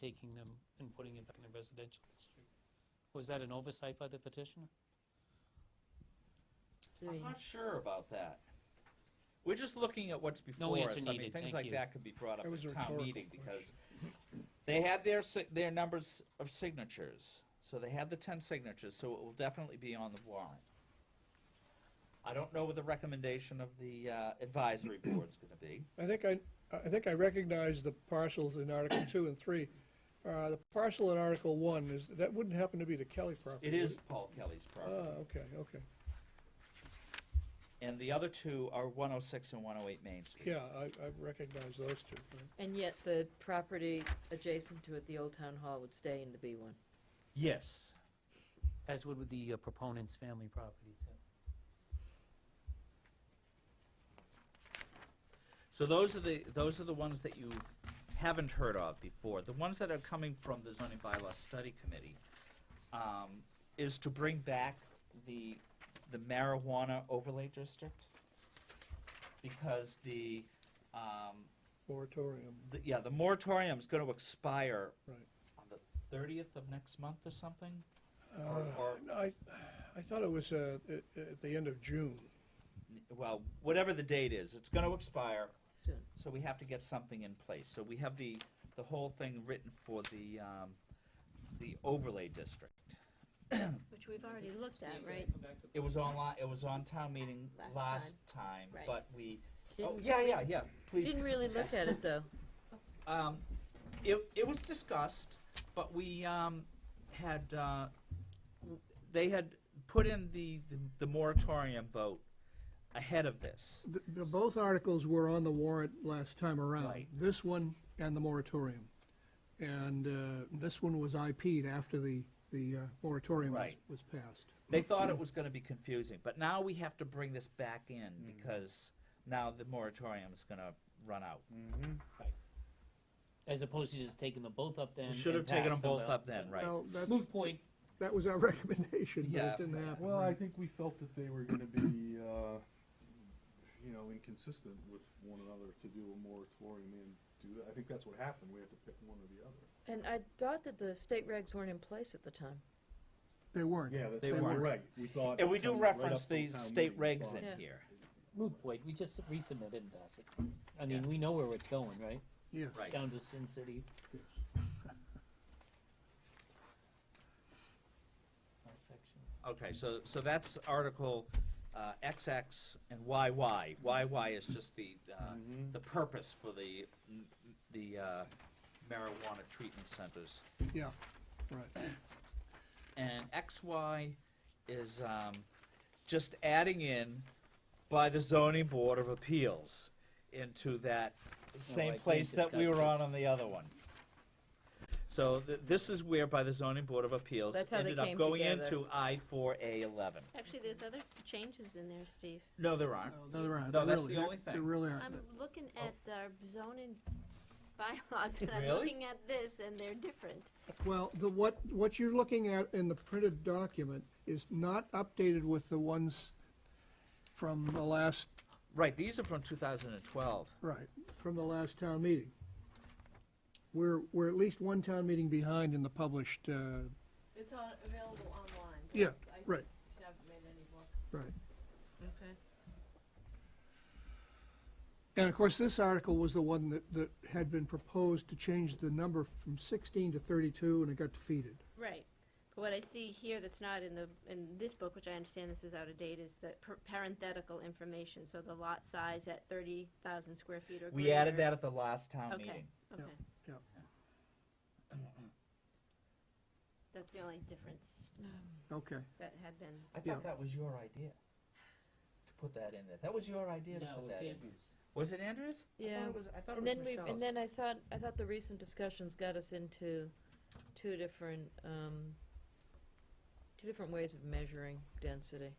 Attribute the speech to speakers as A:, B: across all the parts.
A: taking them and putting it back in the residential district. Was that an oversight by the petitioner?
B: I'm
C: Three.
B: not sure about that. We're just looking at what's before
A: answer
B: us. I mean,
A: needed.
B: things
A: Thank
B: like
A: you.
B: that could be brought up
D: That was
B: at
D: a
B: town
D: rhetorical
B: meeting because they had their, si- their numbers of signatures. So they had the ten signatures, so it will definitely be on the warrant. I don't know what the recommendation of the uh, advisory board's gonna be.
D: I think I, I think I recognize the parcels in Article two and three. Uh, the parcel in Article one is, that wouldn't happen to be the Kelly property.
B: It
D: would
B: is Paul Kelly's
D: Ah,
B: property.
D: okay, okay.
B: And the other two are one oh six and one oh eight Main Street.
D: Yeah, I, I recognize those two. right.
C: And yet the property adjacent to it, the old town hall, would stay in the B one.
B: Yes.
A: As would with the uh, proponent's family property, too.
B: So those are the, those are the ones that you haven't heard of before. The ones that are coming from the zoning bylaw study committee, um, is to bring back the, the marijuana overlay district. Because the, um,
D: Moratorium,
B: the, yeah, the moratorium's gonna expire
D: right.
B: on the thirtieth of next month or something?
D: Uh,
B: or-
D: I, I thought it was, uh, at, at the end of June.
B: N- Well, whatever the date is, it's gonna expire,
C: Soon.
B: So we have to get something in place. So we have the, the whole thing written for the, um, the overlay district.
E: Which we've already looked at, right?
B: It was online, it was on town meeting
E: Last
B: last time,
E: Right.
B: but we, oh,
C: Didn't-
B: yeah, yeah, yeah, please.
C: Didn't really look at it, though.
B: Um, it, it was discussed, but we, um, had, uh, w- they had put in the, the- the moratorium vote ahead of this.
D: The- the- Both articles were on the warrant last time around,
B: Right.
D: this one and the moratorium. And uh, this one was IP'd after the, the uh, moratorium was,
B: Right.
D: was passed.
B: They thought it was gonna be confusing, but now we have to bring this back in because now the moratorium is gonna run out.
A: As opposed to just taking them both up then.
B: We should have
A: and
B: taken them
A: passed
B: both
A: out.
B: up then, right?
D: Well, that,
A: Moot point,
D: that was our recommendation, but
B: Yeah.
D: it didn't happen.
F: Well, I
D: right.
F: think we felt that they were gonna be, uh, you know, inconsistent with one another to do a moratorium and do that. I think that's what happened. We had to pick one or the other.
C: And I thought that the state regs weren't in place at the time.
D: They weren't.
F: Yeah, that's
B: They
F: what we
B: weren't.
F: reg- we thought.
B: And we do
F: coming right
B: reference
F: up to
B: the
F: town
B: state
F: meeting, we
B: regs in
F: thought-
C: Yeah.
B: here,
A: moot point, we just resubmitted and passed it. I mean,
B: Yeah.
A: we know where it's going, right?
D: Yeah.
B: right?
A: Down to Sin City. My section.
B: Okay, so, so that's Article, uh, XX and YY. YY is just the, uh,
F: Mm-hmm.
B: the purpose for the, the, uh, marijuana treatment centers.
D: Yeah, right.
B: And XY is, um, just adding in by the zoning board of appeals into that
A: I
B: same
A: can't
B: place that we
A: discuss
B: were on
A: this.
B: on the other one. So th- this is where by the zoning board of appeals
C: That's how they
B: ended up
C: came
B: going
C: together.
B: into I four A eleven.
E: Actually, there's other changes in there, Steve.
B: No, there aren't.
C: Oh.
D: No, there aren't.
B: No,
D: There
B: that's
D: really-
B: the
D: there-
B: only thing.
D: There really aren't.
E: I'm looking at our zoning bylaws, and I'm
B: oh. Really?
E: looking at this, and they're different.
D: Well, the, what, what you're looking at in the printed document is not updated with the ones from the last,
B: Right, these are from two thousand and twelve.
D: right, from the last town meeting. We're, we're at least one town meeting behind in the published, uh,
G: It's on, available online.
D: Yeah,
G: yes. I
D: right.
G: She haven't made any books.
D: right.
C: Okay.
D: And of course, this article was the one that, that had been proposed to change the number from sixteen to thirty-two, and it got defeated.
E: Right. But what I see here that's not in the, in this book, which I understand this is out of date, is the per- parenthetical information, so the lot size at thirty thousand square feet or greater.
B: We added that at the last town
E: Okay.
B: meeting.
E: Okay.
D: Yeah,
E: That's the only difference
D: Okay,
E: that had been.
B: I
D: Yeah.
B: thought that was your idea, to put that in there. That was your idea to
A: No,
B: put
A: it's
B: that in.
A: Andrews.
B: Was it Andrews? I thought
C: Yeah.
B: it was- I thought it
C: And
B: was
C: then we,
B: Michelle's.
C: and then I thought, I thought the recent discussions got us into two different, um, two different ways of measuring density.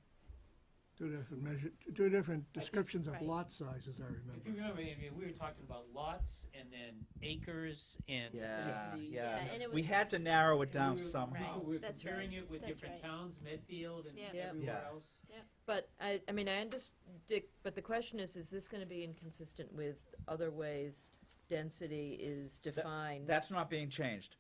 D: two different measure, two different
A: think-
D: descriptions of
E: right.
D: lot sizes, I
A: If you
D: remember.
A: remember, Andrea, we were talking about lots and then acres and.
B: Yeah,
A: density.
B: yeah.
E: Yeah, and it
B: We had to
E: was-
B: narrow it
A: And
B: down
A: we were-
B: somehow.
A: We were
E: That's
A: comparing it with
E: That's
A: different
E: right.
A: towns, Medfield and
E: Yeah.
C: Yeah.
A: everywhere
B: Yeah.
A: else.
C: But I, I mean, I understand, but the question is, is this gonna be inconsistent with other ways
H: density is defined.
C: That's not being changed.